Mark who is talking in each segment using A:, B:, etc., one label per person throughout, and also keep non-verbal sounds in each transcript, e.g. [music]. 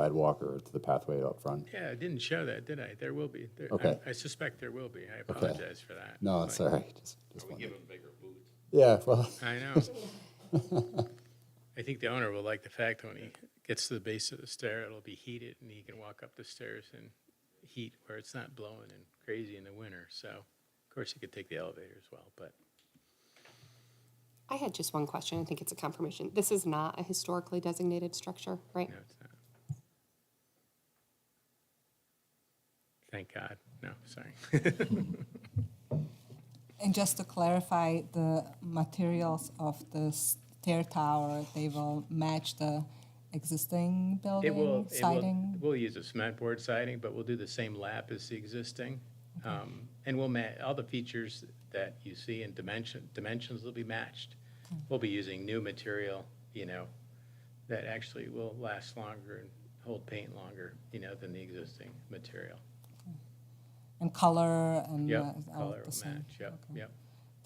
A: sidewalk or to the pathway up front.
B: Yeah, I didn't show that, did I? There will be. There- I-
A: Okay.
B: I suspect there will be. I apologize for that.
A: No, it's all right. [laughs] Just, just
C: We
A: wondering.
C: give them bigger boots.
A: Yeah, well, [laughs]
B: I know. I think the owner will like the fact when he gets to the base of the stair, it'll be heated and he can walk up the stairs in heat where it's not blowing and crazy in the winter. So, of course, he could take the elevator as well, but
D: I had just one question. I think it's a confirmation. This is not a historically designated structure, right?
B: no, it's not. Thank God. No, sorry.
E: And just to clarify, the materials of the stair tower, they will match the existing
B: It will,
E: building
B: it will,
E: siding?
B: we'll use a cement board siding, but we'll do the same lap as the existing. Um, And we'll ma, all the features that you see in dimension, dimensions will be matched. We'll be using new material, you know, that actually will last longer and hold paint longer, you know, than the existing material.
E: And color and uh,
B: Yep,
E: all
B: color
E: the
B: will
E: same?
B: match, yep, yep.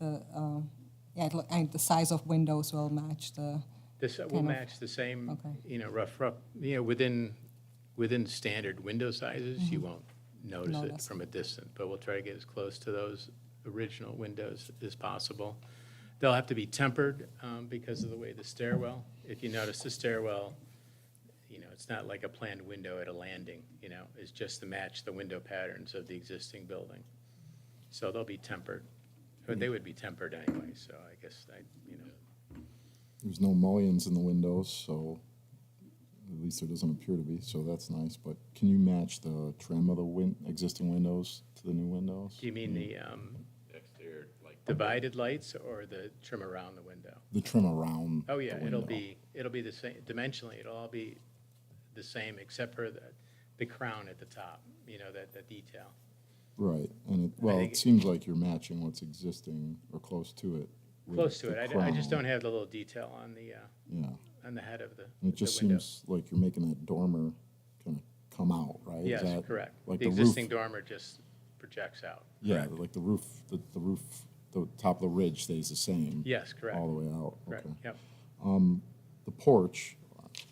E: The, um, yeah, it look- and the size of windows will match the,
B: This uh, will
E: Kind of.
B: match the same,
E: Okay.
B: you know, rough, rough, you know, within, within standard window sizes, you won't notice it
E: Mm-hmm. Notice.
B: from a distance, but we'll try to get as close to those original windows as possible. They'll have to be tempered um, because of the way the stairwell, if you notice the stairwell, you know, it's not like a planned window at a landing, you know, it's just to match the window patterns of the existing building. So they'll be tempered, but
E: Mm.
B: they would be tempered anyway, so I guess I, you know,
F: There's no mullions in the windows, so at least there doesn't appear to be, so that's nice. But can you match the trim of the win- existing windows to the new windows?
B: do you mean the, um,
C: Exterior, like,
B: divided lights or the trim around the window?
F: The trim around.
B: Oh, yeah,
F: the
B: it'll
F: window.
B: be, it'll be the same, dimensionally, it'll all be the same except for the, the crown at the top, you know, that, that detail.
F: Right, and it, well,
B: think-
F: it seems like you're matching what's existing or close to it. with
B: Close to it,
F: the
B: I d- I, just
F: crown.
B: don't have the little detail on the, uh,
F: Yeah,
B: on the head of the,
F: and it
B: the
F: just
B: window.
F: seems like you're making that dormer kind of come out, right? Is
B: Yes,
F: that
B: correct.
F: Like
B: The
F: the roof-
B: existing dormer just projects out.
F: Yeah,
B: correct.
F: like the roof, the, the roof, the top of the ridge stays the same.
B: Yes, correct,
F: All the way out,
B: correct,
F: okay.
B: yep.
F: The porch,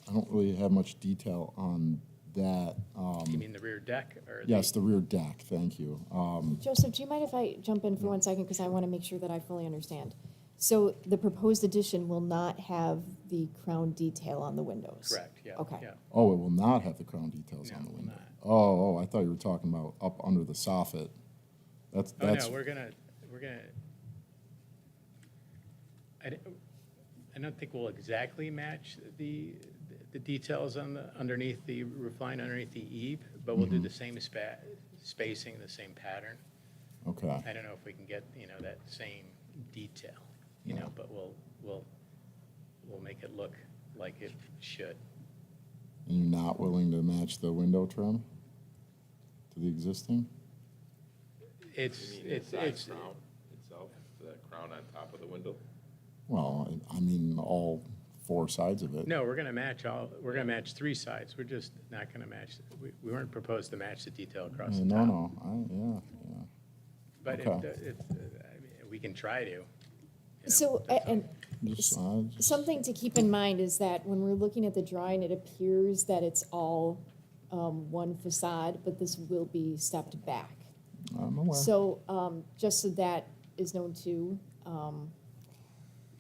F: I don't really have much detail on that. Um,
B: You mean the rear deck or? the-
F: yes, the rear deck, thank you. Uh,
G: Joseph, do you mind if I jump in for one second, because I want to make sure that I fully understand? So the proposed addition will not have the crown detail on the windows?
B: Correct, yeah,
G: Okay.
B: yeah.
F: Oh, it will not have the crown details on
B: No,
F: the
B: it will
F: window.
B: not.
F: Oh, oh, I thought you were talking about up under the soffit. That's,
B: Oh,
F: that's,
B: no, we're gonna, we're gonna, I don't, I don't think we'll exactly match the, the details on the, underneath the roof line, underneath the eave, but we'll do the same spa, spacing, the same pattern.
F: okay,
B: I don't know if we can get, you know, that same detail, you know, but we'll, we'll, we'll make it look like it should.
F: and you're not willing to match the window trim to the existing?
B: It's,
C: you mean
B: it's,
C: inside
B: it's,
C: crown itself, the crown on top of the window?
F: Well, I- I mean, all four sides of it.
B: No, we're gonna match all, we're gonna match three sides, we're just not gonna match, we, we weren't proposed to match the detail across the top.
F: No, no, I, yeah, yeah.
B: But if,
F: Okay.
B: the- if, uh, I mean, we can try to. you know,
G: So, a- and
F: Just, I just-
G: something to keep in mind is that when we're looking at the drawing, it appears that it's all um, one facade, but this will be stepped back.
F: I'm aware.
G: So um, just so that is known too,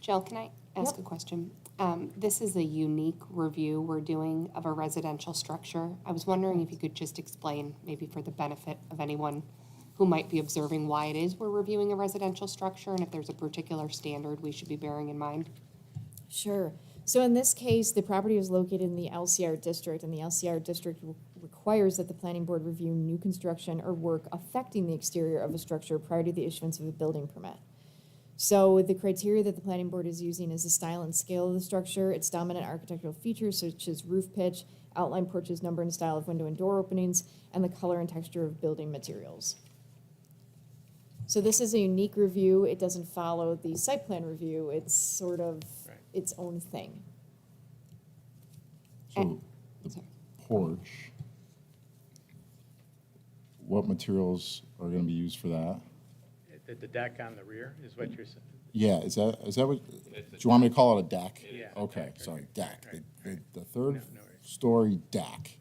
D: Jill, can I ask
G: Yep.
D: a question? Um, this is a unique review we're doing of a residential structure. I was wondering if you could just explain, maybe for the benefit of anyone who might be observing, why it is we're reviewing a residential structure and if there's a particular standard we should be bearing in mind.
G: Sure. So in this case, the property is located in the LCR district, and the LCR district re- requires that the planning board review new construction or work affecting the exterior of a structure prior to the issuance of a building permit. So the criteria that the planning board is using is the style and scale of the structure, its dominant architectural features such as roof pitch, outline porches, number and style of window and door openings, and the color and texture of building materials. So this is a unique review. It doesn't follow the site plan review. It's sort of
B: Right.
G: its own thing.
F: So the
D: Sorry.
F: porch, what materials are going to be used for that?
B: The, the deck on the rear is what you're saying?
F: Yeah, is that, is that what, do you want me to call it a deck?
B: is a
F: Okay,
B: deck,
F: sorry, deck, The- the, the
B: No,
F: third
B: no worries.
F: story deck.